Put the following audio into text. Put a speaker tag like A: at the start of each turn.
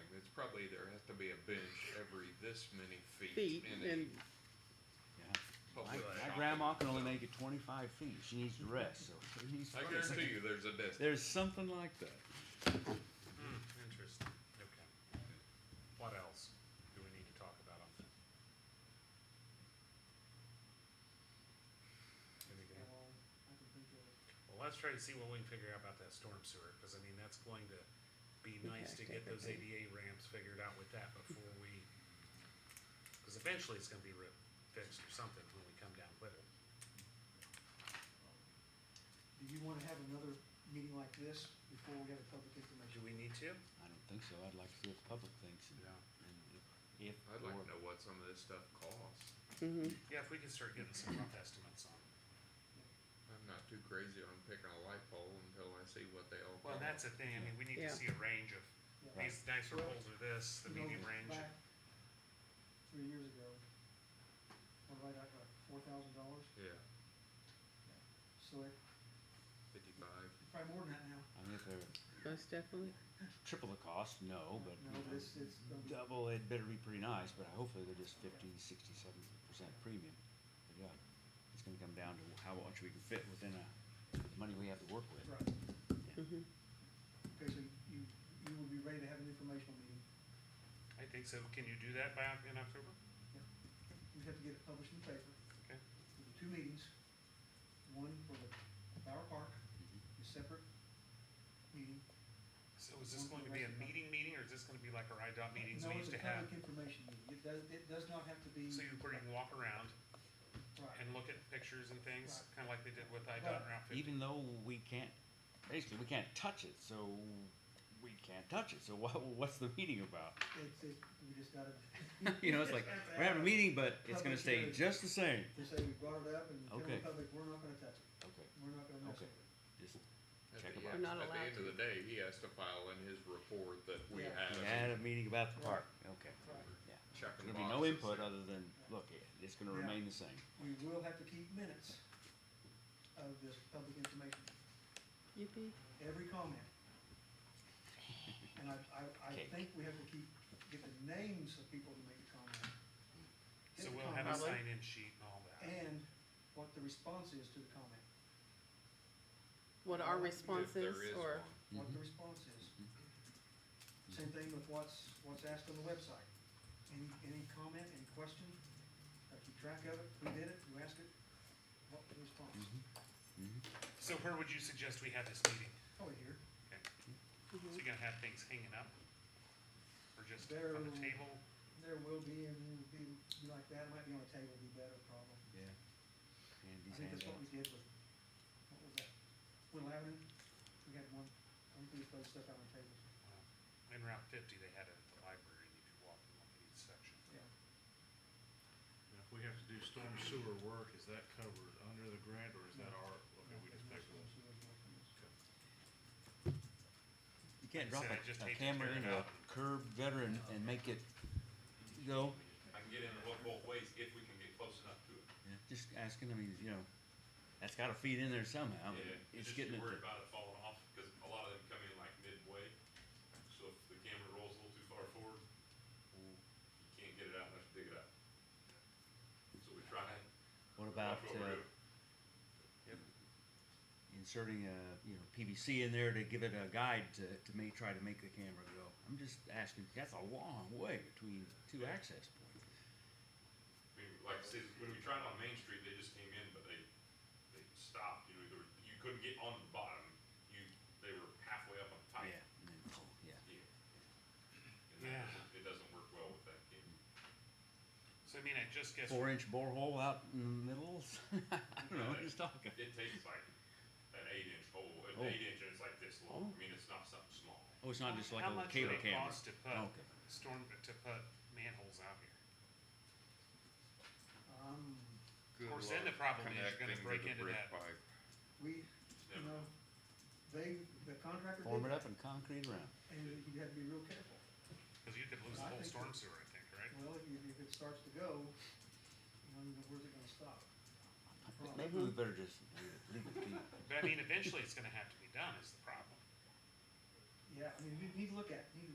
A: typically there has to be a bench every this many feet
B: feet
A: in
B: and
A: a
C: My,
A: public
C: my
A: shopping
C: grandma can only
A: center.
C: make it twenty-five feet, she needs to rest, so she's
A: I guarantee you, there's a desk.
C: There's something like that.
D: Hmm, Interesting, okay. What else do we need to talk about on that? Anything? Well, let's try to see what we can figure out about that storm sewer, cause I mean, that's going to be
B: We
D: nice to
B: packed
D: get those
B: everything.
D: ADA ramps figured out with that before we, cause eventually it's gonna be re- fixed or something when we come down with it.
E: Do you wanna have another meeting like this before we have a public
D: Do
E: information?
D: we need to?
C: I don't think so, I'd like to see what the public thinks and, and if, if.
A: I'd like
C: or-
A: to know what some of this stuff costs.
D: Yeah, if we can start getting some rough estimates on it.
A: I'm not too crazy on picking a light pole until I see what they all cost.
D: Well, that's the thing, I mean, we need to
B: Yeah.
D: see a range of,
E: Yeah.
D: these nicer poles are this, the
E: You know,
D: medium range.
E: back Three years ago, I right at like four thousand dollars,
A: Yeah,
E: so it,
A: fifty-five.
E: probably more than that now.
C: I mean, if they're
B: most definitely.
C: triple the cost, no, but. you
E: No,
C: know,
E: but it's, it's, gonna be-
C: Double, it better be pretty nice, but hopefully they're just fifty, sixty-seven percent premium. But yeah, it's gonna come down to how much we can fit within a, the money we have to work with.
E: right,
B: Mhm.
E: okay, so you, you will be ready to have an informational meeting,
D: I think so, can you do that by, Oc- in October?
E: you have to get it published in the paper.
D: Okay.
E: There'll be Two meetings, one for the Bower Park,
D: Mm-hmm.
E: a separate meeting.
D: So is this going to be a meeting meeting, or is this gonna be like our IDOT meetings
E: Mm-hmm. No,
D: we
E: it's
D: used to
E: a
D: have?
E: Public information meeting, it does, it does not have to be.
D: So you, where you can walk around
E: Right.
D: and look at pictures and things, kinda like they did with IDOT
E: Right.
D: and Route fifty?
C: even though we can't, basically, we can't touch it, so we can't touch it. So what, what's the meeting about?
E: It's, it, we just gotta,
C: you know, it's like we're having a meeting, but it's going to stay just the same.
E: they say we brought it up and tell
C: Okay.
E: the public, we're not gonna touch it,
C: Okay,
E: we're not gonna mess
C: Okay. just
E: with it.
A: At
C: Check
A: the
C: 'em out.
A: end-
B: Not allowed
A: At the end of the day, he has to file in his report that we
E: Yeah.
A: had.
C: we had a meeting about the park. Okay,
E: Right.
C: yeah.
A: Checking
C: There'll be no
A: boxes.
C: input other than look, it's going to
E: Yeah.
C: remain the same.
E: We will have to keep minutes of this public information,
B: Yippee.
E: every comment. And I, I, I
C: Cake.
E: think we have to keep, get the names of people to make a comment. Get
D: So
E: the
D: we'll have a
E: comment,
D: sign-in sheet and all that.
E: And what the response is to the comment,
B: What our
A: If there
B: responses
A: is one.
B: or,
E: what
C: Mm-hmm.
E: the response is. Same thing with what's, what's asked on the website. Any, any comment, any question, I keep track of it, who did it, who asked it, what the response.
C: Mm-hmm.
D: So where would you suggest we have this meeting?
E: Over Oh, here,
B: mm-hmm.
D: So you're gonna have things hanging up? Or just
E: There-
D: on the table?
E: there will be, and will be like that, might be on a table, would be better probably.
C: Yeah. And
E: I
C: these
E: think that's what we
C: handouts.
E: did with, what was that, Will Avenue, we had one, one piece of stuff out on tables,
D: In Route fifty, they had it at the library, and you could walk and look at each section.
E: yeah.
F: Now, If we have to do storm sewer work, is that covered under the grant, or is that our, okay, we just pick one?
C: You can't drop
D: Said I just
C: a, a
D: hate to
C: camera
D: tear it
C: in a
D: up.
C: curb veteran and make it go.
G: I can get in both, both ways if we can get close enough to it.
C: Just asking. I mean, you know, that's got to feed in there somehow.
G: Yeah,
C: It's
G: just
C: getting
G: be
C: it.
G: worried about it falling off, cause a lot of them come in like midway, so if the camera rolls a little too far forward, you can't get it out unless you dig it up. So we try,
C: What about
G: watch what
C: uh,
G: we're doing.
C: inserting a you know PVC in there to give it a guide to to make try to make the camera go? I'm just asking. That's a long way between two access points.
G: I mean, like I said, when we tried on Main Street, they just came in, but they, they stopped, you know, there were- you couldn't get on the bottom, you, they were halfway up on the top.
C: Yeah. And then, oh, yeah.
G: Yeah. And
D: Yeah.
G: that doesn't, it doesn't work well with that camera.
D: So I mean, I just guess
C: Four inch borehole out in the middle. I don't know. I'm just talking.
G: It takes like an eight inch hole, an
C: Oh.
G: eight inch, and it's like this
C: Oh.
G: long. I mean, it's not something small.
C: Oh, it's not just like
D: How
C: a
D: much
C: cable
D: would it
C: camera.
D: cost to put
C: Okay.
D: storm to put manholes out here?
E: Um,
A: Good
D: course, then
A: luck
D: the problem is you're gonna
A: connecting to
D: break
A: the
D: into
A: brick
D: that.
A: pipe.
E: we,
G: It's
E: you
G: never-
E: know, they, the contractor
C: Form it
E: did,
C: up and concrete around.
E: and you have to be real careful.
D: Because you could lose
E: I
D: the whole
E: think
D: storm
E: that-
D: sewer, I think, right?
E: Well, if, you- if it starts to go, you know, you know, where's it gonna stop? Problem.
C: Maybe we better just leave it, leave it be.
D: But I mean, eventually it's gonna have to be done is the problem.
E: Yeah, I mean, you need to look at, it, you need to